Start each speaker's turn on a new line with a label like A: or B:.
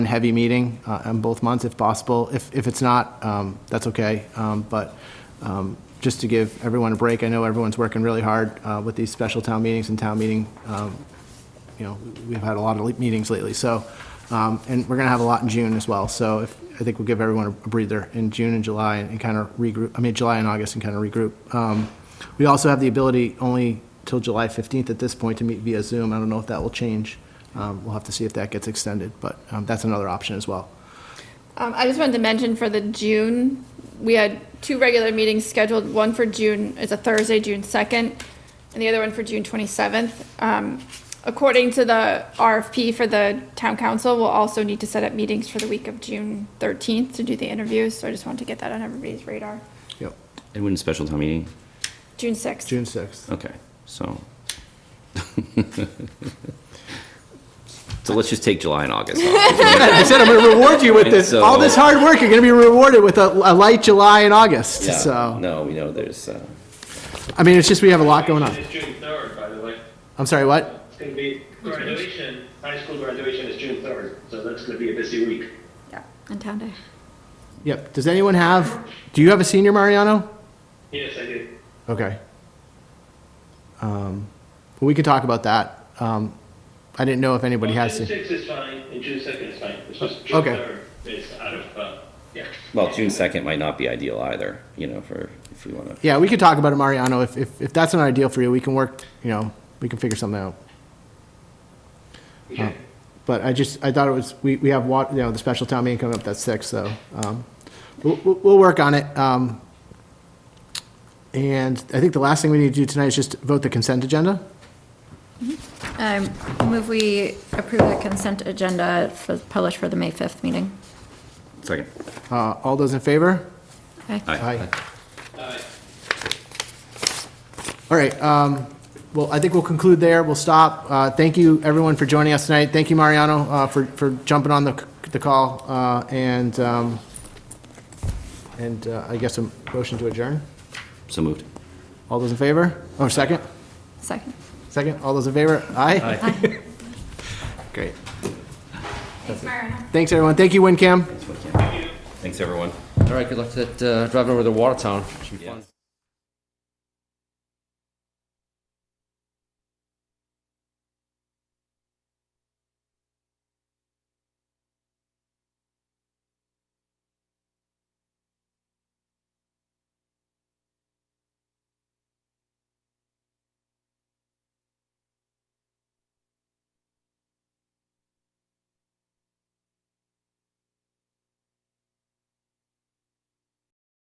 A: heavy meeting uh, on both months if possible. If, if it's not, um, that's okay. Um, But um, just to give everyone a break, I know everyone's working really hard uh, with these special town meetings and town meeting. um, You know, we've had a lot of le- meetings lately, so, um, and we're going to have a lot in June as well. So if, I think we'll give everyone a breather in June and July and kind of regroup, I mean, July and August and kind of regroup. Um, We also have the ability only till July 15th at this point to meet via Zoom. I don't know if that will change. Um, We'll have to see if that gets extended, but um, that's another option as well.
B: Um, I just wanted to mention for the June, we had two regular meetings scheduled. One for June is a Thursday, June 2nd, and the other one for June 27th. Um, According to the RFP for the town council, we'll also need to set up meetings for the week of June 13th to do the interviews. So I just wanted to get that on everybody's radar.
A: Yep.
C: And when's special town meeting?
B: June 6th.
A: June 6th.
C: Okay, so. So let's just take July and August off.
A: I said I'm going to reward you with this, all this
C: So-
A: hard work, you're going to be rewarded with a a light July and August,
C: Yeah,
A: so.
C: No, we know there's, uh,
A: I mean, it's just, we have a lot going on.
D: It's June third, by the way.
A: I'm sorry, what?
D: It's gonna be graduation, high school graduation is June third, so that's gonna be a busy week.
B: Yeah, on town day.
A: Yep. Does anyone have, do you have a senior, Mariano?
D: Yes, I did.
A: Okay. Um, well, We can talk about that. Um, I didn't know if anybody has.
D: June
A: se-
D: sixth is fine, and June second is fine, it's just June
A: Okay.
D: third is out of, uh, yeah.
C: well, June second might not be ideal either, you know, for, if we wanna.
A: Yeah, we could talk about it, Mariano. If, if, if that's not ideal for you, we can work, you know, we can figure something out. Oh.
D: Okay.
A: But I just, I thought it was, we, we have, wa- you know, the special town meeting coming up, that's six, so, um, we'll, we'll, we'll work on it. Um, and I think the last thing we need to do tonight is just vote the consent agenda.
E: Um, Move we approve the consent agenda for- published for the May 5th meeting.
C: Second.
A: Uh, all those in favor?
E: Aye.
C: Aye.
D: Aye.
A: All right, um, well, I think we'll conclude there, we'll stop. Uh, Thank you, everyone, for joining us tonight. Thank you, Mariano, uh, for, for jumping on the, c- the call, uh, and, um, and uh, I guess a motion to adjourn.
C: So moved.
A: All those in favor? Or second?
E: Second.
A: Second, all those in favor? Aye? Great.
B: Thanks, Mariano.
A: Thanks, everyone. Thank you, WinCam.
C: Thanks, everyone.
F: All right, good luck to that, uh, driving over to Watertown. Should be fun.